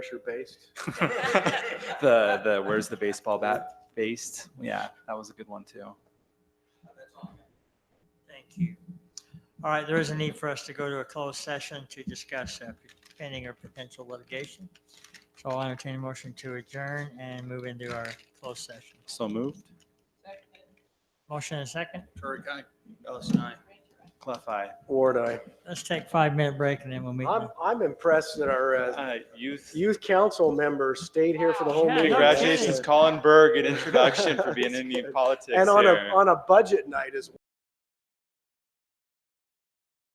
pressure based. the the where's the baseball bat based? Yeah, that was a good one too. Thank you. All right, there is a need for us to go to a closed session to discuss uh, pending or potential litigation. So I'll entertain a motion to adjourn and move into our closed session. So moved. Motion and second. Curry County. Clef eye. Ward, I. Let's take five minute break and then we'll meet. I'm, I'm impressed that our uh, Uh, youth. youth council members stayed here for the whole Yeah, meeting. Congratulations, Colin Berg. Good introduction for being in the politics. And on a, here. on a budget night as well.